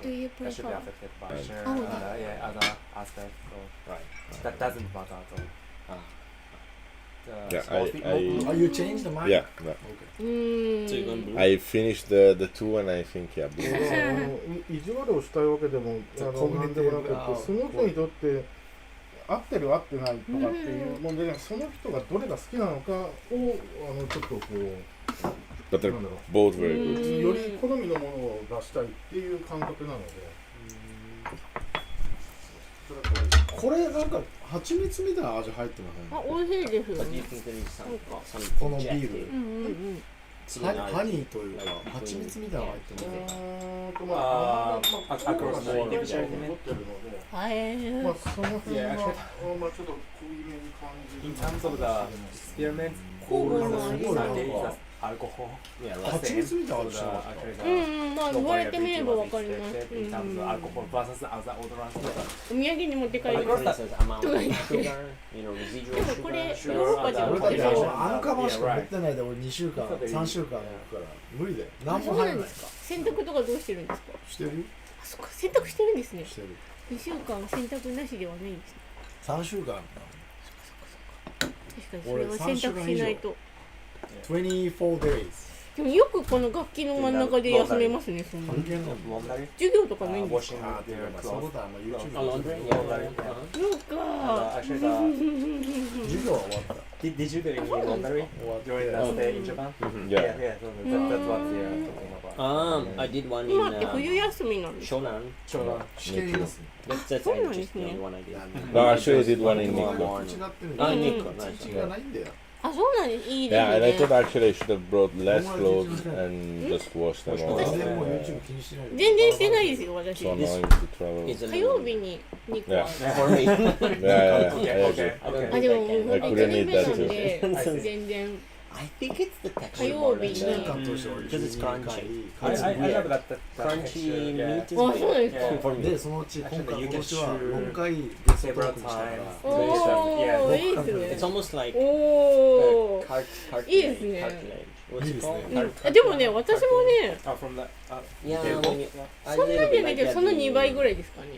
do you That should be prefer? affected by Right. share Oh, and yeah. uh, yeah, other aspects. So Right. that doesn't matter at all. Ah. Uh, Yeah, small I- bit- I- mo- Oh, you changed the mic? Yeah, yeah. Okay. Mm. So you want blue? I finished the the two and I think yeah. あの意地悪をしたいわけでもあそうの何でもなくてコミュニティがその人にとって合ってる合ってないとかっていう問題じゃなくその人がどれが好きなのかをあのちょっとこう But they're なんだろ both very good. うより好みのものを出したいっていう感覚なのでそれはこうこれなんか蜂蜜みたいな味入ってませんあ、美味しいですよ But do ね you。think there is some, Oh. some このビ jet ー in う it? んうんうん。 It's ルハ not- ハニーというかはい蜂蜜みたいなの入ってますねうーんとまああーまああアクロスまあのイン残ってるディビジュアルねのではい。まあその辺 Yeah, は actually- まあちょっと濃いめに感じ In る terms of the experiments, Cool. cool is Cool. Sunday is as alcohol. Yeah, the right. 蜂 same. 蜜みたいな So 味し the てますか actually う the んうん、まあ the 言われてみればわ variability か was ります。 detected うんう in terms ん of うん、 alcohol versus other odorants. お土産に持って帰る But Like。 for instance, amount Do I- of sugar, you know, residual でもこれ sugar, ヨーロッパじゃ俺なだっいてであしょのあのカバンしか持ってないで俺2週間 Yeah, right. 3週間やるから無理だよ何も入らないか洗濯とかどうしてるんですか。してるあ、そっか、洗濯してるんですね。してる二週間洗濯なしではないんですね。 3週間確かにそれは洗濯しないと。 24 days でもよくこの楽器の真ん中で休めますね。そんな関係ないもん Laundry, 授業とかない uh, んですか。 washing ああで their もそういうこ clothes. とはまあ a YouTube laundry, Yeah, right. yeah, right. Uh-huh. Uh, actually, the, そうか。授業は終わった did, did you do any laundry 終わって during the stay in Japan? Mhm, Yeah, yeah. yeah, so that, that's what they are talking about. Um, I did one 今 in って uh, 冬休みなんですか。 Shonan. そうだ試験ですね That's, that's Shonan just the ですね。 only one I did. いやね No, actually, I did one in 日本ニ Nikkei. コが違ってるんだあよニコうんない一日がないんだよあ、そうなんです。いいです Yeah, and I ね thought。actually I should have brought less clothes and just washed them all. 全 out. 然もう Yeah. YouTube 気にしてない全然してないですよ、私 So。annoying to travel. It's a 火曜 little 日 bit に2個ある。 for me. Yeah, yeah, yeah, Okay, I agree. okay, I don't okay. あでももう本当に1年目なんで I couldn't eat that too. 全然 I think it's the texture. 火曜 more 日 than に1年 the- 間通して俺 Because it's 12回 crunchy. I, 家 I, 族 I love weird. that, that texture, Crunchy yeah. meat is あそうです Yeah. か for me. でそのうち今回 Actually, you can 今年は shoot 6回ゲストトークもした several から times. おおいい It's ですね almost like お uh, お cart, cartilage. It is, yeah. cartilage. What's it いいですね。 called? うん Cart- あでもね私もね Oh, from the, uh, Yeah, table? when you- I そんなん little じ bit ゃない like けど that. その you- 2倍ぐらいですかね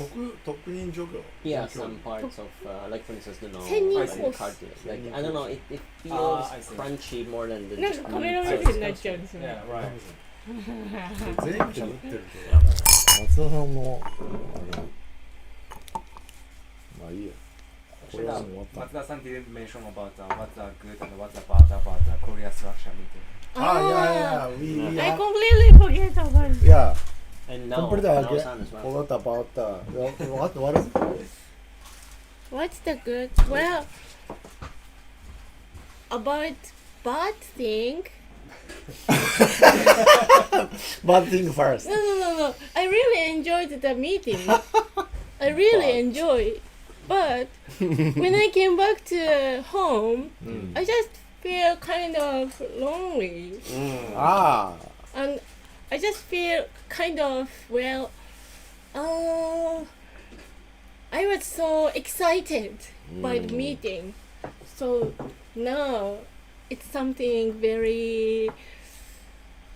特特任除業 Yeah, some parts of, uh, like for instance, the no, Sending like course. cartilage. Like Sending I don't know, it, it feels Ah, I see. crunchy more than the なん just かカメラ meat. 目線になっちゃうんですよね yeah, right. 全部喋ってるけど松田さんもあれまあいいやこれはもう終わった Matsuda-san didn't mention about uh, what's uh, good and what's uh, bad about the Korea structure meeting. ああいやいやい I や completely forget about it いや And Don't now, put it now again. sun as well. 終わった終わった終わった終わる What's the good? Well about bad thing バッティングファース No no no no I really enjoyed the meeting I really enjoyed but when I came back to home ト、うん、 I just feel kind of lonely あ and I just feel kind of well uh, I was so excited by Mm. the meeting so now it's something very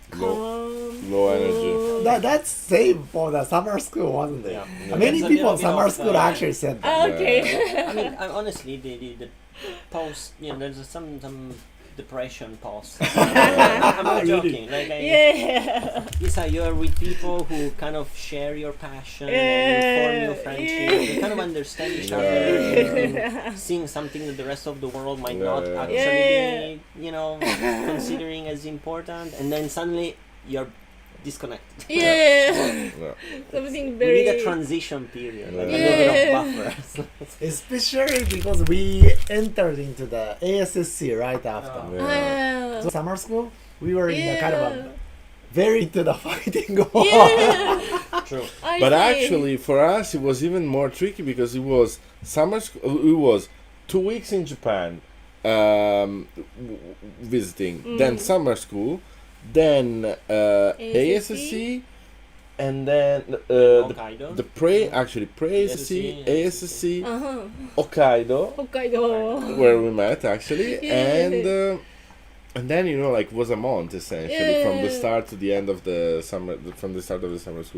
calm low energy. あ cool. that, that's same for the summer school wasn't it、 Yeah. many It's a people little in bit summer of, school uh, actually said that Ah, okay I mean, I, honestly, the, the the post, you know, there's some some depression post. I'm not joking. Like, I, yeah It's how you're with people who kind of share your passion and you form Yeah, new friendship. yeah. You kind of understand each Yeah. other. and Seeing something that the rest of the world might Yeah, not yeah. actually Yeah, be, you know, considering as important, and then suddenly you're disconnected. yeah Yeah. something We very need a transition period, like Yeah. a little bit of buffer. especially because we entered into the ASSC right after uh, Yeah. Ah. so summer school we were in the yeah. kind of a- very into the fighting war yeah. True. I But see. actually, for us, it was even more tricky because it was summer. Sc- uh, it was two weeks in Japan um, w- w- visiting, then Mm. summer school, then uh, ASSC? ASSC, and then uh, the, Hokkaido. the pre actually pre ASSC, ASSC, ASSC, uh-huh. Hokkaido, 北海道 where we met actually, Yeah. and uh, And then you know, like was a month essentially from the Yeah. start to the end of the summer, from the start of the summer school.